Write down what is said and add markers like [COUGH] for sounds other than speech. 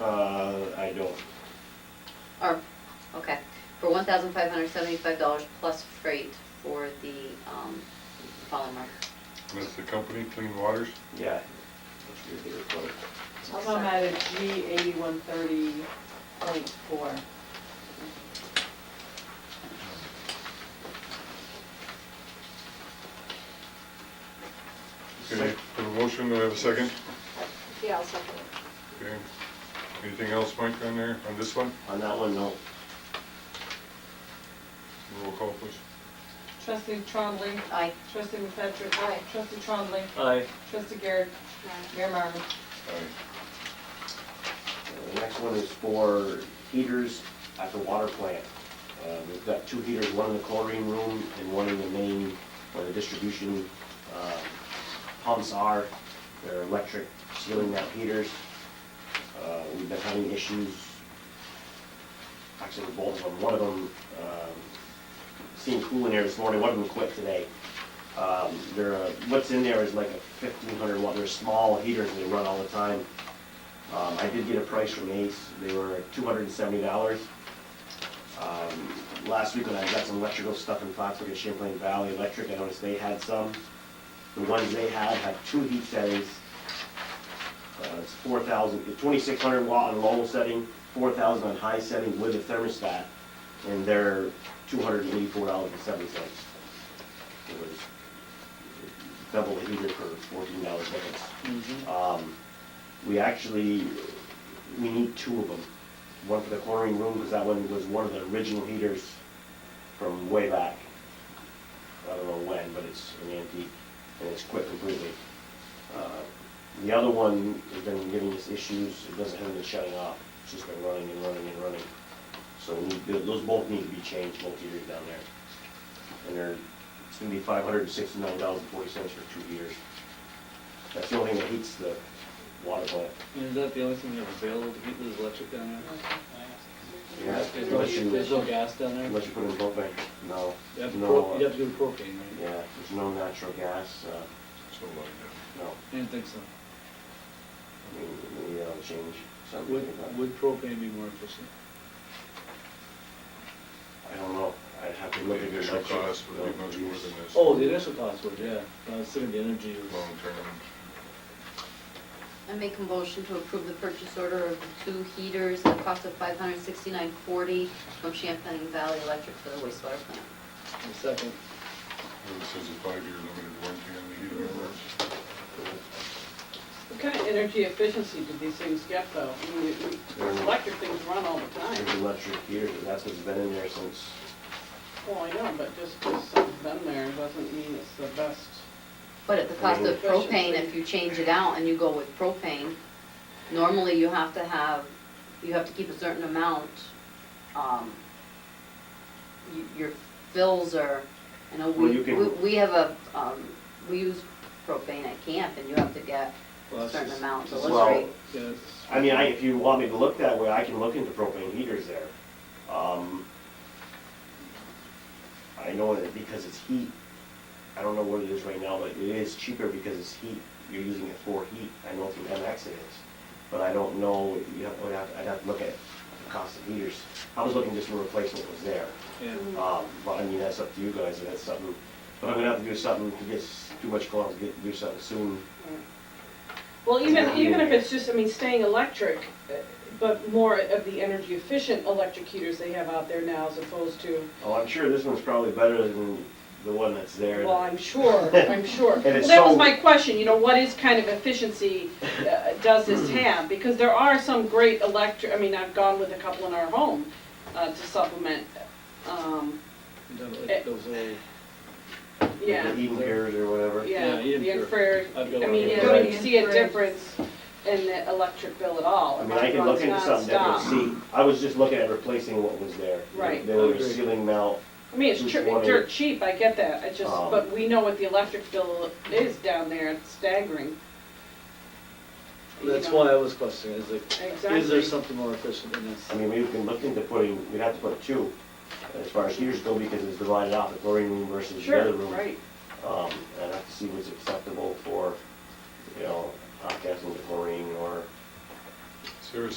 Uh, I don't, Or, okay, for one thousand five hundred seventy-five dollars plus freight for the, um, polymer. With the company, Clean Waters? yeah. Let's do the report. How about at a G eighty-one thirty point four? Okay, for the motion, do I have a second? Yeah, I'll second it. Okay. Anything else, Mike, on there, on this one? On that one, no. Roll call, please. Trustee Trombley, Aye. trustee McFetrich. Aye. Trustee Trombley, Aye. trustee Garrett, Mayor Marvin. Aye. The Uh, next one is for heaters at the water plant. Uh, We've got two heaters, one in the chlorine room and one in the main, where the distribution uh, pumps are. They're electric ceiling mount heaters. Uh, We've been having issues, actually with both of them. One of them, um, seen cooling air this morning, one of them quit today. Um, They're, uh, what's in there is like a fifteen hundred watt, they're small heaters, and they run all the time. Um, I did get a price from Ace, they were two hundred and seventy dollars. Um, Last week when I got some electrical stuff in Foxwood at Champlain Valley Electric, I noticed they had some. The ones they had had two heat settings. Uh, It's four thousand, twenty-six hundred watt on low setting, four thousand on high setting with a thermostat, and they're two hundred and eighty-four dollars and seventy cents. It was double the heater for fourteen dollars difference. Um, we actually, we need two of them. One for the chlorine room, because that one was one of the original heaters from way back. I don't know when, but it's an antique, and it's quit completely. Uh, The other one has been giving us issues, it doesn't have been shutting off, it's just been running and running and running. So we need- those both need to be changed, both heaters down there. And they're, it's gonna be five hundred and sixty-nine dollars and forty cents for two heaters. That's the only thing that heats the water plant. And is that the only thing you have available to heat with electric down there? Yeah, There's no, unless there's you, no gas down there? unless you put in propane, no, You have to, no, pro- uh, you have to do propane, yeah, right? there's no natural gas, uh, So like no, I didn't think so. I mean, maybe that'll change something. Would, but- would propane be more efficient? I don't know, I'd have to that. look The at the initial electric. cost would be bill. much more than this. Oh, the initial cost would, yeah, Uh, I was thinking the energy was, Long-term. I make a motion to approve the purchase order of the two heaters at a cost of five hundred sixty-nine forty from Champlain Valley Electric for the wastewater plant. a second. This is a five-year limited warranty on the heater. What kind of energy efficiency did these things get though? I mean, we- we- those electric things run all the There's time. electric heater, but that's what's been in there since, Well, I know, but just because something's been there doesn't mean it's the best. But at the cost of propane, if you change it out and you go with propane, normally you have to have, you have to keep a certain amount. um, y- Your fills are, you know, Well, we, you can- we- we have a, um, we use propane at camp and you have to get Well, a it's certain just- amount, so it's let's Well- rate. Yeah, it's- I mean, I, if you want me to look that way, I can look into propane heaters there. Um, I know that because it's heat, I don't know what it is right now, but it is cheaper because it's heat, you're using it for heat, I know from MX it is. But I don't know, you have, I'd have, I'd have to look at the cost of heaters, I was looking just for replacement was there. Yeah, Um, but I mean, that's up to you guys, if that's something, but I'm gonna have to do something, if it gets too much cold, I'll get, do something soon. Well, even, even if it's just, I mean, staying electric, uh, but more of the energy efficient electric heaters they have out there now as opposed to, Oh, I'm sure this one's probably better than the one that's there. well, I'm sure, I'm sure. [LAUGHS] And it's Well, that so- was my question, you know, what is kind of efficiency uh, does this Hmm. have? Because there are some great electric, I mean, I've gone with a couple in our home uh, to supplement, um, you know, like those old, yeah. The E heating gears or whatever. Yeah, Yeah, even the for- infrared, I I've got mean, one you of don't those. even see a difference in the electric bill at all. I mean, I can look into something different, It's nonstop. see, I was just looking at replacing what was there. Right. There was I a agree. ceiling mount, I mean, it's Which tr- one dirt is- cheap, I get that, I just, Um, but we know what the electric bill is down there, it's staggering. You that's know, why I was questioning, is like, is there Exactly. something more efficient than this? I mean, we can look into putting, we'd have to put two, as far as heaters go, because it's divided out, the chlorine room versus the Sure, other room. right, Um, and I have to see what's acceptable for, you know, hot gas and chlorine, or